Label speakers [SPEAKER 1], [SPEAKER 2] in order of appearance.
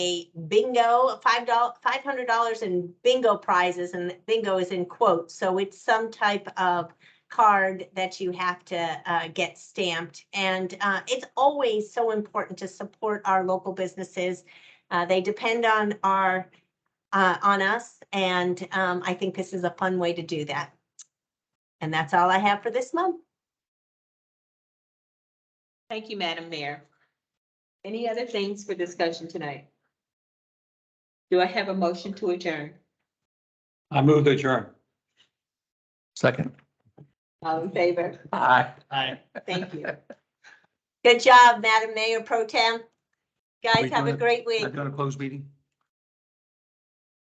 [SPEAKER 1] a bingo, five dollars, five hundred dollars in bingo prizes, and bingo is in quotes, so it's some type of card that you have to uh, get stamped. And uh, it's always so important to support our local businesses. Uh, they depend on our uh, on us, and um, I think this is a fun way to do that. And that's all I have for this month.
[SPEAKER 2] Thank you, Madam Mayor. Any other things for discussion tonight? Do I have a motion to adjourn?
[SPEAKER 3] I move to adjourn.
[SPEAKER 4] Second.
[SPEAKER 2] All in favor?
[SPEAKER 4] Aye.
[SPEAKER 3] Aye.
[SPEAKER 2] Thank you.
[SPEAKER 1] Good job, Madam Mayor Pro Tem. Guys, have a
[SPEAKER 4] doing it?
[SPEAKER 1] great week.
[SPEAKER 4] Not doing a closed meeting?